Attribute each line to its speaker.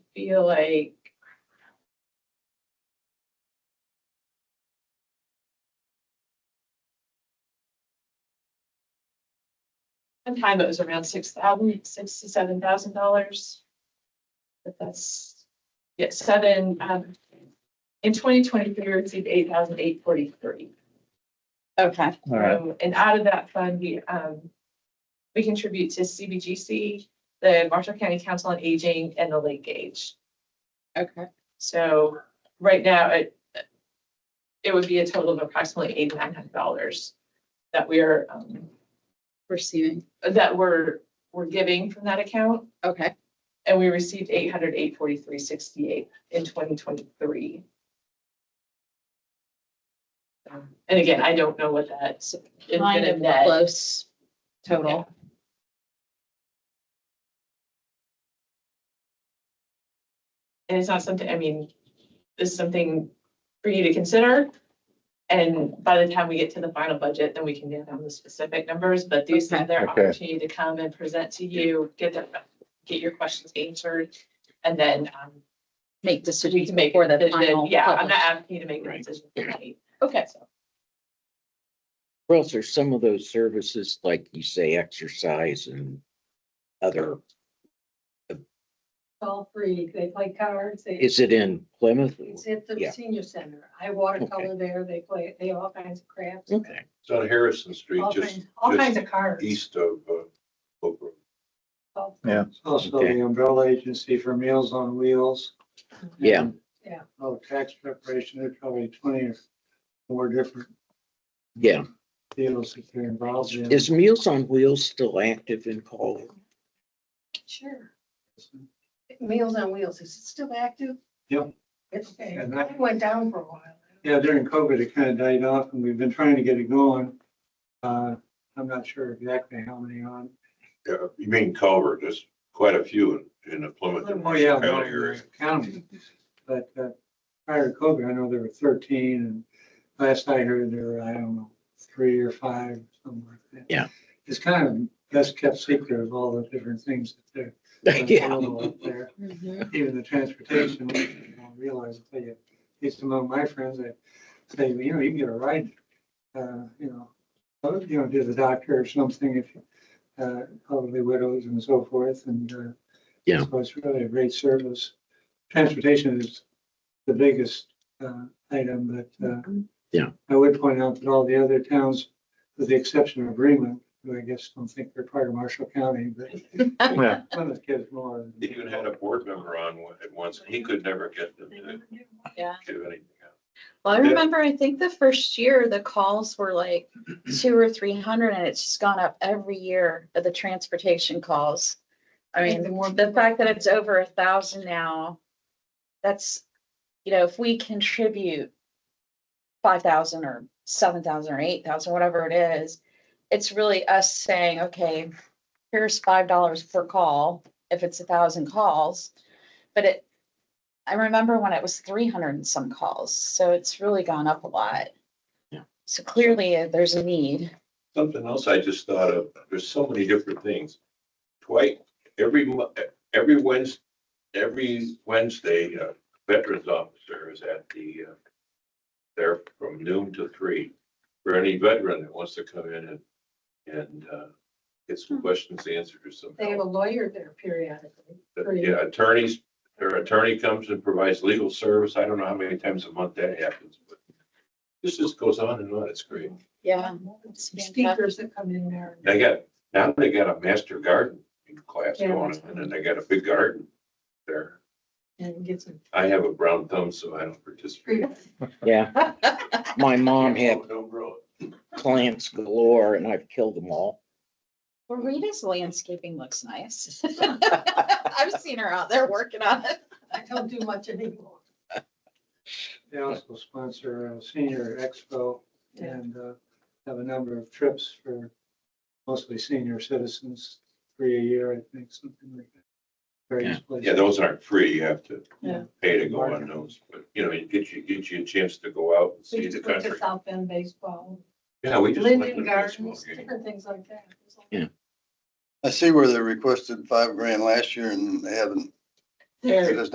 Speaker 1: feel like. One time it was around six thousand, six to seven thousand dollars. But that's, yeah, seven, um, in twenty twenty-three, we received eight thousand eight forty-three.
Speaker 2: Okay,
Speaker 3: All right,
Speaker 1: Um, And out of that fund, we, um, we contribute to CBGC, the Marshall County Council on Aging and the Lake Age.
Speaker 2: okay.
Speaker 1: So right now, it, it would be a total of approximately eighty-nine hundred dollars that we are, um,
Speaker 2: Receiving,
Speaker 1: that we're, we're giving from that account.
Speaker 2: okay,
Speaker 1: And we received eight hundred, eight forty-three, sixty-eight in twenty twenty-three. Um, And again, I don't know what that is
Speaker 2: kind
Speaker 1: gonna
Speaker 2: of
Speaker 1: net.
Speaker 2: close total.
Speaker 1: And it's not something, I mean, this is something for you to consider. And by the time we get to the final budget, then we can get down the specific numbers, but these are their
Speaker 3: Okay.
Speaker 1: opportunity to come and present to you, get their, get your questions answered. And then, um,
Speaker 2: Make
Speaker 1: we
Speaker 2: decisions
Speaker 1: can make.
Speaker 2: before
Speaker 1: the-
Speaker 2: the
Speaker 1: the-
Speaker 2: final.
Speaker 1: Yeah, I'm
Speaker 2: publish.
Speaker 1: not asking you to make a
Speaker 4: Right.
Speaker 1: decision. tonight.
Speaker 2: Okay,
Speaker 1: So,
Speaker 4: Or else there's some of those services, like you say, exercise and other,
Speaker 5: It's all free. They play cards. They,
Speaker 4: is it in Plymouth?
Speaker 5: it's at the
Speaker 4: yeah.
Speaker 5: senior center. I watercolor there. They play, they have all kinds of crafts.
Speaker 4: Okay,
Speaker 6: It's on Harrison Street,
Speaker 5: All
Speaker 6: just,
Speaker 5: kinds, all
Speaker 6: just
Speaker 5: kinds of cards.
Speaker 6: east of, uh, Oak Grove.
Speaker 5: All-
Speaker 3: yeah,
Speaker 7: It's Also
Speaker 4: Okay.
Speaker 7: the umbrella agency for Meals on Wheels.
Speaker 4: Yeah.
Speaker 7: And,
Speaker 5: Yeah.
Speaker 7: Oh, tax preparation, there's probably twenty or more different
Speaker 4: yeah.
Speaker 7: deals that they're involved in.
Speaker 4: Is Meals on Wheels still active in Collier?
Speaker 5: Sure. Meals on Wheels. Is it still active?
Speaker 7: Yeah.
Speaker 5: It's,
Speaker 7: And that-
Speaker 5: it went down for a while.
Speaker 7: Yeah, during COVID, it kind of died off and we've been trying to get it going. Uh, I'm not sure exactly how many on.
Speaker 6: Yeah, you mean Culver, there's quite a few in, in the Plymouth. and
Speaker 7: Oh, yeah,
Speaker 6: Marshall County area.
Speaker 7: county. But uh, prior to COVID, I know there were thirteen and last I heard there were, I don't know, three or five, something like that.
Speaker 4: Yeah.
Speaker 7: It's kind of best kept secret of all the different things that they're.
Speaker 4: Yeah,
Speaker 7: available up there.
Speaker 1: Mm-hmm.
Speaker 2: Mhm.
Speaker 7: Even the transportation, you don't realize, I tell you, at least among my friends, they say, you know, you can get a ride, uh, you know, uh, you know, to the doctor or something if, you- uh, elderly widows and so forth and, uh,
Speaker 4: Yeah.
Speaker 7: So it's really a great service. Transportation is the biggest, uh, item, but, uh,
Speaker 4: Mm-hmm. Yeah.
Speaker 7: I would point out that all the other towns, with the exception of Bremen, who I guess don't think they're part of Marshall County, but
Speaker 3: yeah.
Speaker 7: Plymouth gives more.
Speaker 6: They Even had a board member on one- at once, he could never get them to
Speaker 2: Yeah.
Speaker 6: give anything out.
Speaker 2: Well, I
Speaker 6: Yeah.
Speaker 2: remember, I think the first year, the calls were like two or three hundred, and it's just gone up every year of the transportation calls. I mean, the fact that it's over a thousand now, that's, you know, if we contribute five thousand or seven thousand or eight thousand, whatever it is, it's really us saying, okay, here's five dollars per call, if it's a thousand calls. But it, I remember when it was three hundred and some calls, so it's really gone up a lot.
Speaker 4: Yeah.
Speaker 2: So clearly, uh, there's a need.
Speaker 6: Something else I just thought of, there's so many different things. Twice, every, mo- every Wednesday, every Wednesday, a veterans officer is at the, uh, there from noon to three, for any veteran that wants to come in and, and, uh, get some questions answered or some
Speaker 5: Hmm. They have
Speaker 6: help.
Speaker 5: a lawyer there periodically.
Speaker 6: But, Yeah, attorneys, their attorney comes and provides legal service. I don't know how many times a month that happens, but this just goes on and on. It's great.
Speaker 2: Yeah.
Speaker 5: Speakers that come in there.
Speaker 6: They got, now they got a master garden class
Speaker 5: Yeah.
Speaker 6: going on and they got a big garden there.
Speaker 5: And get some.
Speaker 6: I have a brown thumb, so I don't participate.
Speaker 4: yeah. My mom had
Speaker 6: Don't- Don't grow it.
Speaker 4: plants galore and I've killed them all.
Speaker 2: Well, Rita's landscaping looks nice. I've seen her out there working on it.
Speaker 5: I don't do much anymore.
Speaker 7: They also sponsor a senior expo
Speaker 5: Yeah.
Speaker 7: and uh, have a number of trips for mostly senior citizens, three a year, I think, something like that. Various places.
Speaker 6: Yeah, those aren't free. You have to
Speaker 5: Yeah.
Speaker 6: pay to go on those, but you know, it gets you, gets you a chance to go out and
Speaker 5: We
Speaker 6: see the
Speaker 5: just went
Speaker 6: country.
Speaker 5: to South Bend baseball,
Speaker 6: Yeah, we just went to
Speaker 5: Linden
Speaker 6: the baseball
Speaker 5: Gardens,
Speaker 6: game.
Speaker 5: different things like that. It's like-
Speaker 8: I see where they requested five grand last year and they haven't,
Speaker 1: There-
Speaker 8: it has